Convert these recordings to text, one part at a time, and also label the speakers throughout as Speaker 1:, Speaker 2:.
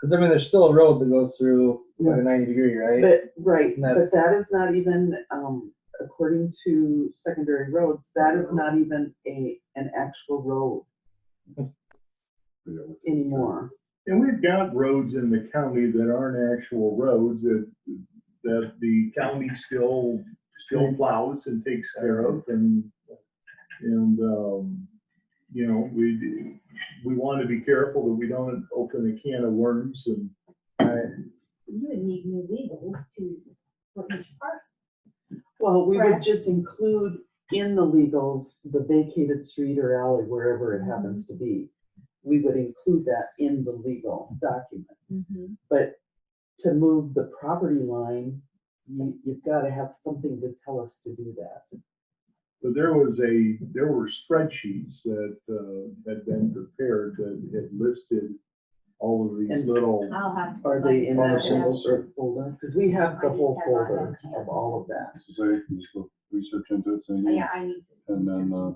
Speaker 1: Because I mean, there's still a road that goes through like a 90 degree, right?
Speaker 2: But, right,
Speaker 1: And
Speaker 2: but
Speaker 1: that's-
Speaker 2: that is not even, um, according to secondary roads, that is not even a, an actual road anymore.
Speaker 3: And we've got roads in the county that aren't actual roads that, that the county still, still plows and takes care of and, and, um, you know, we, do- we want to be careful that we don't open a can of worms and,
Speaker 4: You would need new legals to, for each park.
Speaker 2: Well, we would
Speaker 4: Correct.
Speaker 2: just include in the legals, the vacated street or alley, wherever it happens to be. We would include that in the legal document, but to move the property line, you, you've gotta have something to tell us to do that.
Speaker 3: but there was a, there were spreadsheets that, uh, had been prepared that had listed all of these
Speaker 2: And-
Speaker 3: little.
Speaker 4: I'll have. to
Speaker 2: Are
Speaker 4: look
Speaker 2: they in
Speaker 4: into
Speaker 2: a
Speaker 4: that.
Speaker 2: single cert folder? Because we have the
Speaker 4: I
Speaker 2: whole
Speaker 4: just have all
Speaker 2: folder
Speaker 4: that.
Speaker 2: of all of that.
Speaker 5: Society, you just go research into it, so you-
Speaker 4: Yeah, I need to.
Speaker 5: And then, uh,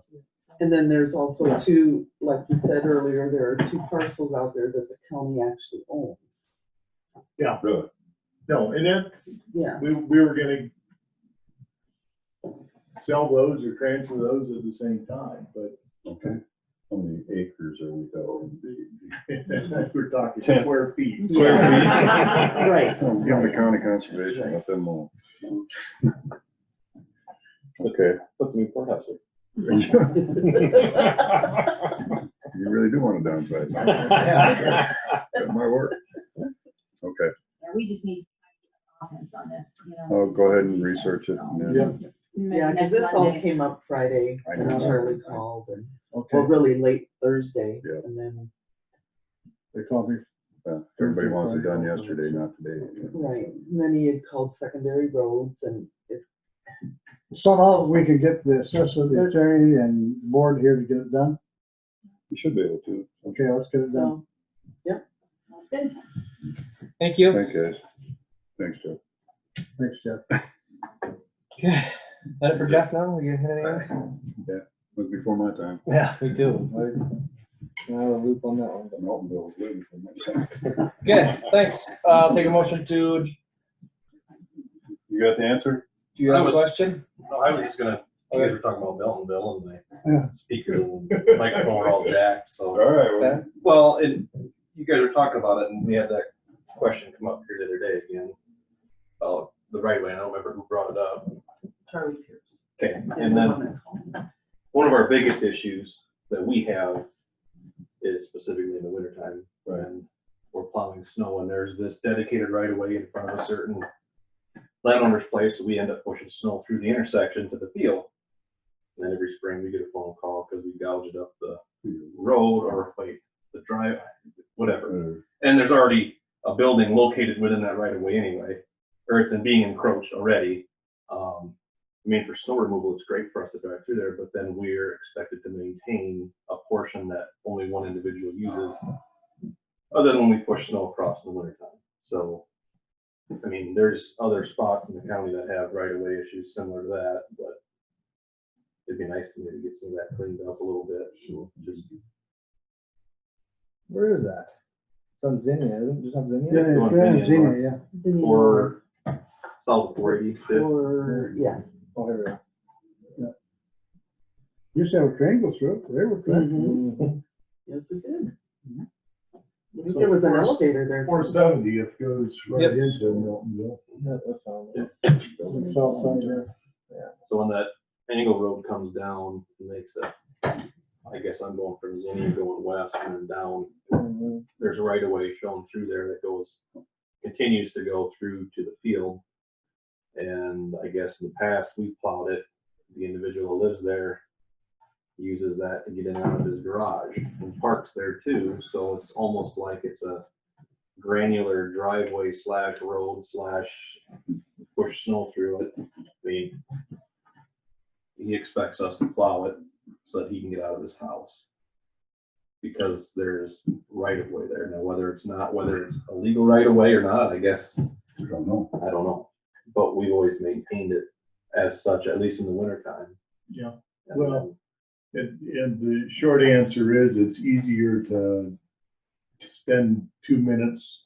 Speaker 2: And then there's also two, like you said earlier, there are two parcels out there that the county actually owns.
Speaker 5: really,
Speaker 3: No, and that,
Speaker 2: Yeah,
Speaker 3: We, we were gonna sell those or transfer those at the same time, but
Speaker 5: okay. How many acres are we going?
Speaker 3: we're talking
Speaker 5: Ten.
Speaker 3: square feet.
Speaker 5: Square
Speaker 2: feet. Right.
Speaker 5: I'm giving the county conservation, let them all. Okay.
Speaker 1: Put the report up.
Speaker 5: You really do want to downsize.
Speaker 1: Yeah.
Speaker 5: That might work. Okay,
Speaker 4: Yeah, we just need comments on this, you know.
Speaker 5: I'll go ahead and research it. and then-
Speaker 4: Maybe
Speaker 2: yeah, because
Speaker 4: next
Speaker 2: this all
Speaker 4: Monday.
Speaker 2: came up Friday
Speaker 5: I
Speaker 2: and
Speaker 5: know.
Speaker 2: Charlie called and, well,
Speaker 3: Okay,
Speaker 2: really late Thursday.
Speaker 5: Yeah.
Speaker 2: And then,
Speaker 3: they called me.
Speaker 5: uh, Everybody wants it done yesterday, not today.
Speaker 2: right, and then he had called secondary roads and it,
Speaker 6: somehow we could get the assessor, the
Speaker 2: Let's-
Speaker 6: attorney and board here to get it done.
Speaker 5: You should be able to.
Speaker 6: Okay, let's get it done.
Speaker 2: so,
Speaker 4: Well, good.
Speaker 1: Thank you.
Speaker 5: Thank you, guys. Thanks, Jeff.
Speaker 6: Thanks, Jeff.
Speaker 1: Okay. That it for Jeff now? We gonna hit anything? else?
Speaker 5: Was before my time.
Speaker 1: Yeah, we do. I- I have a loop on that one. but-
Speaker 5: Milton Bill was waiting for me.
Speaker 1: Okay, thanks. Uh, I'll take a motion to, do
Speaker 5: You got the answer?
Speaker 1: you
Speaker 7: I
Speaker 1: have a
Speaker 7: was-
Speaker 1: question?
Speaker 7: No, I was just gonna, you guys were talking about Miltonville and
Speaker 6: Yeah.
Speaker 7: the speaker and microphone were all jacked,
Speaker 5: All
Speaker 7: so.
Speaker 5: right, well,
Speaker 1: Okay.
Speaker 7: Well, and you guys were talking about it and we had that question come up here the other day again. About the right way, I don't remember who brought it up.
Speaker 2: Charlie Pierce.
Speaker 7: Okay,
Speaker 2: is
Speaker 7: and
Speaker 2: the
Speaker 7: then
Speaker 2: one that called.
Speaker 7: one of our biggest issues that we have is specifically in the wintertime.
Speaker 5: Right.
Speaker 7: When we're plowing snow and there's this dedicated right of way in front of a certain landowner's place, so we end up pushing snow through the intersection to the field. And then every spring we get a phone call because we gouged up the road or wait, the drive, whatever.
Speaker 5: uh,
Speaker 7: And there's already a building located within that right of way anyway, or it's in being encroached already. Um, I mean, for snow removal, it's great for us to drive through there, but then we're expected to maintain a portion that only one individual uses. Other than when we push snow across in the wintertime. So, I mean, there's other spots in the county that have right of way issues similar to that, but it'd be nice to maybe get some of that cleaned up a little bit. Sure. Just
Speaker 1: Where is that? It's on Zinnia, isn't it? Just on
Speaker 6: Yeah,
Speaker 1: Zinnia?
Speaker 6: yeah,
Speaker 7: want
Speaker 6: yeah,
Speaker 7: Vinny in
Speaker 6: Gina,
Speaker 7: line?
Speaker 6: yeah.
Speaker 2: Then you-
Speaker 7: Or solve forty,
Speaker 2: Or, yeah,
Speaker 1: Oh, here we go.
Speaker 6: Used to have a train go through it, they were
Speaker 2: Mhm.
Speaker 6: trained.
Speaker 1: Mhm.
Speaker 2: yes, it did.
Speaker 6: Mhm.
Speaker 2: I think there was an
Speaker 3: So-
Speaker 2: elevator there.
Speaker 3: Four seventieth goes
Speaker 1: Yep.
Speaker 3: right into Miltonville.
Speaker 1: Yeah, that's on there.
Speaker 6: Mm-hmm. South side there.
Speaker 7: So when that angle road comes down, it makes that, I guess I'm going from Zinnia going west and then down.
Speaker 1: Mhm.
Speaker 7: There's a right of way shown through there that goes, continues to go through to the field. And I guess in the past, we plowed it. The individual who lives there uses that to get in and out of his garage and parks there too. So it's almost like it's a granular driveway slash road slash push snow through it. I mean, he expects us to plow it so that he can get out of his house. Because there's right of way there. Now, whether it's not, whether it's a legal right of way or not, I guess,
Speaker 5: I don't know.
Speaker 7: I don't know. But we've always maintained it as such, at least in the wintertime.
Speaker 3: Yeah.
Speaker 7: And
Speaker 3: Well- And, and the short answer is it's easier to spend two minutes